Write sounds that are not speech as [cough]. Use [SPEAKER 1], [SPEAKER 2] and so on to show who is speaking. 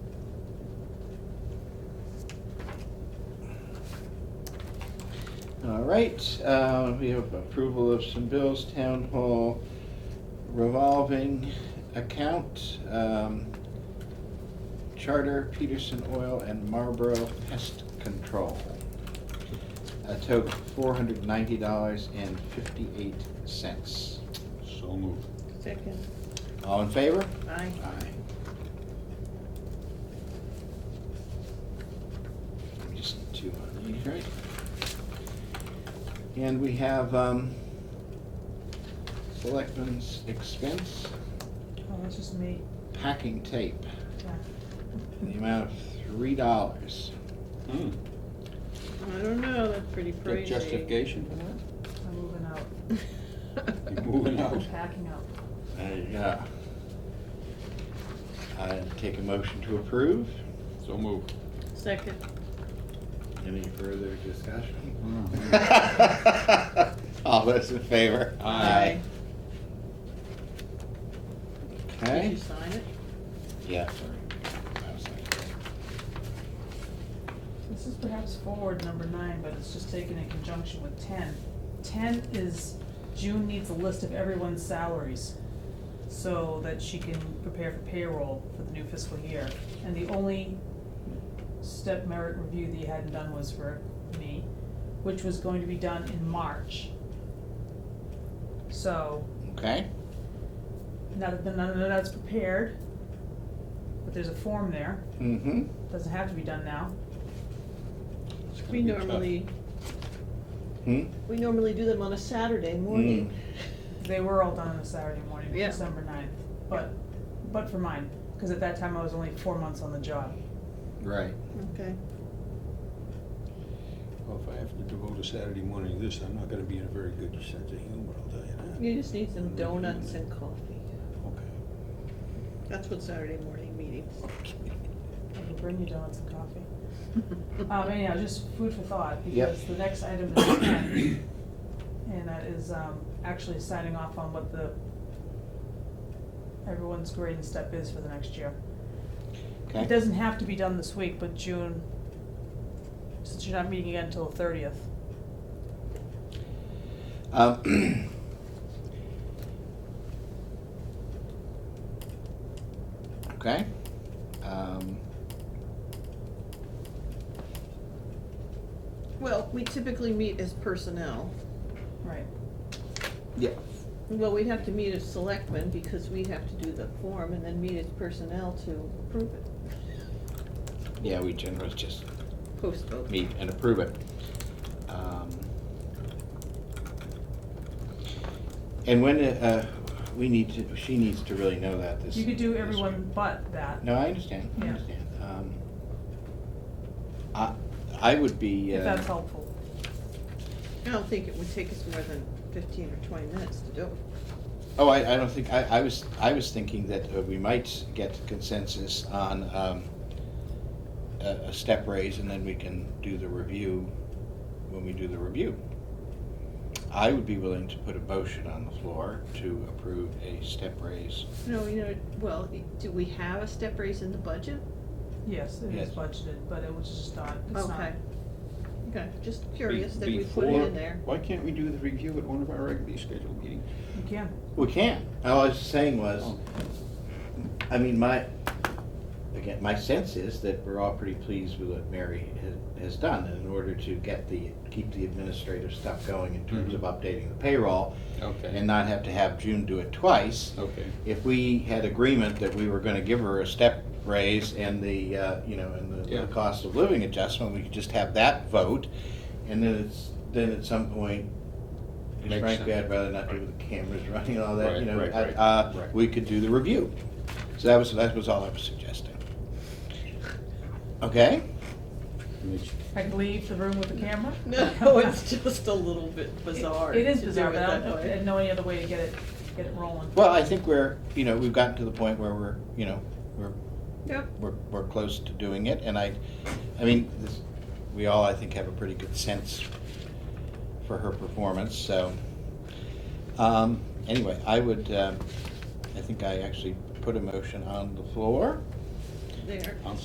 [SPEAKER 1] All right, uh, we have approval of some bills, town hall revolving account, um, charter, Peterson Oil, and Marlboro Pest Control. A total four hundred ninety dollars and fifty-eight cents.
[SPEAKER 2] So moved.
[SPEAKER 3] Second,
[SPEAKER 1] All in favor?
[SPEAKER 3] aye.
[SPEAKER 1] Aye. We Just two on these, right? And we have, um, selectmen's expense,
[SPEAKER 3] Oh, that's just me.
[SPEAKER 1] packing tape,
[SPEAKER 3] Yeah.
[SPEAKER 1] in the amount of three dollars.
[SPEAKER 2] Hmm,
[SPEAKER 3] I don't know, that's pretty
[SPEAKER 2] got
[SPEAKER 3] crazy.
[SPEAKER 2] justification for that?
[SPEAKER 4] I'm moving
[SPEAKER 2] [laughs]
[SPEAKER 4] out.
[SPEAKER 2] You're moving out.
[SPEAKER 4] I'm packing up.
[SPEAKER 1] Yeah. I uh, take a motion to approve.
[SPEAKER 2] So moved.
[SPEAKER 3] Second,
[SPEAKER 1] Any further discussion?
[SPEAKER 2] Mhm.
[SPEAKER 1] [laughs] All those in favor?
[SPEAKER 2] Aye.
[SPEAKER 3] did you
[SPEAKER 1] Okay.
[SPEAKER 3] sign it?
[SPEAKER 1] Yeah, sorry. I was like,
[SPEAKER 4] This is perhaps forward number nine, but it's just taken in conjunction with ten. Ten is, June needs a list of everyone's salaries so that she can prepare for payroll for the new fiscal year. And the only step merit review that you hadn't done was for me, which was going to be done in March. So,
[SPEAKER 1] Okay,
[SPEAKER 4] now that, none of that's prepared, but there's a form there.
[SPEAKER 1] mm-hmm.
[SPEAKER 4] Doesn't have to be done now.
[SPEAKER 2] It's gonna
[SPEAKER 3] We
[SPEAKER 2] be tough.
[SPEAKER 3] normally,
[SPEAKER 1] Hmm?
[SPEAKER 3] we normally do them on a Saturday morning.
[SPEAKER 4] They were all done on a Saturday morning,
[SPEAKER 3] Yeah.
[SPEAKER 4] December ninth, but, but for mine, because at that time I was only four months on the job.
[SPEAKER 1] Right.
[SPEAKER 2] Mm.
[SPEAKER 3] Okay,
[SPEAKER 2] Well, if I have to devote a Saturday morning to this, I'm not gonna be in a very good sense of humor, I'll tell you
[SPEAKER 3] you just need some donuts and coffee.
[SPEAKER 2] that. Okay.
[SPEAKER 3] That's what Saturday morning [laughs] meetings.
[SPEAKER 4] I can bring you donuts and coffee.
[SPEAKER 3] Uh,
[SPEAKER 4] Um, anyhow, just food for thought,
[SPEAKER 1] Yep.
[SPEAKER 4] because the next item is ten, and that is, um, actually signing off on what the, everyone's grade and step is for the next year. It
[SPEAKER 1] Okay,
[SPEAKER 4] doesn't have to be done this week, but June, since you're not meeting again until the thirtieth,
[SPEAKER 1] um. [clears throat] Okay, um,
[SPEAKER 3] Well, we typically meet as personnel.
[SPEAKER 4] right?
[SPEAKER 1] yeah,
[SPEAKER 3] Well, we have to meet as selectmen because we have to do the form and then meet as personnel to approve it.
[SPEAKER 1] yeah, we generally just
[SPEAKER 3] Post vote.
[SPEAKER 1] meet and approve it. Um, And when, uh, we need to, she needs to really know that this.
[SPEAKER 4] You could do
[SPEAKER 1] this
[SPEAKER 4] everyone but that.
[SPEAKER 1] No, I understand, I
[SPEAKER 4] Yeah.
[SPEAKER 1] understand. Um, I, I would be,
[SPEAKER 4] If
[SPEAKER 1] uh,
[SPEAKER 4] that's helpful.
[SPEAKER 3] I don't think it would take us more than fifteen or twenty minutes to do it.
[SPEAKER 1] oh, I, I don't think, I, I was, I was thinking that uh, we might get consensus on, um, a, a step raise and then we can do the review when we do the review. I would be willing to put a motion on the floor to approve a step raise.
[SPEAKER 3] No, you know, well, do we have a step raise in the budget?
[SPEAKER 4] Yes, it is
[SPEAKER 1] Yes.
[SPEAKER 4] budgeted, but it was just not, it's not.
[SPEAKER 3] Okay. Okay, just curious that
[SPEAKER 2] Be-
[SPEAKER 3] we put it
[SPEAKER 2] before-
[SPEAKER 3] in there.
[SPEAKER 2] Why can't we do the review at one of our regularly scheduled meetings?
[SPEAKER 4] You can.
[SPEAKER 1] We can. Oh. All I was saying
[SPEAKER 2] Oh.
[SPEAKER 1] was, I mean, my, again, my sense is that we're all pretty pleased with what Mary ha- has done. And in order to get the, keep the administrative stuff going in terms of updating the payroll and
[SPEAKER 2] Okay,
[SPEAKER 1] not have to have June do it twice,
[SPEAKER 2] okay.
[SPEAKER 1] if we had agreement that we were gonna give her a step raise and the, uh, you know, and the- the
[SPEAKER 2] Yeah.
[SPEAKER 1] cost of living adjustment, we could just have that vote. And then it's, then at some point,
[SPEAKER 2] Makes
[SPEAKER 1] frankly,
[SPEAKER 2] sense.
[SPEAKER 1] I'd rather not do with the cameras running and all that, you
[SPEAKER 2] Right,
[SPEAKER 1] know,
[SPEAKER 2] right,
[SPEAKER 1] I-
[SPEAKER 2] right,
[SPEAKER 1] uh,
[SPEAKER 2] right.
[SPEAKER 1] we could do the review. So that was, that was all I was suggesting. Okay?
[SPEAKER 2] Makes-
[SPEAKER 4] I can leave the room with the camera?
[SPEAKER 3] [laughs] No,
[SPEAKER 4] [laughs]
[SPEAKER 3] it's just a little bit
[SPEAKER 4] It-
[SPEAKER 3] bizarre.
[SPEAKER 4] It is
[SPEAKER 3] to do
[SPEAKER 4] bizarre, but I
[SPEAKER 3] that
[SPEAKER 4] don't know,
[SPEAKER 3] way.
[SPEAKER 4] I know any other way to get it, get it rolling.
[SPEAKER 1] Well, I think we're, you know, we've gotten to the point where we're, you know, we're
[SPEAKER 3] Yep,
[SPEAKER 1] we're, we're close to doing it, and I, I mean, this, we all, I think, have a pretty good sense for her performance, so. Um, anyway, I would, uh, um, I think I actually put a motion on the floor.
[SPEAKER 3] there.
[SPEAKER 2] I'm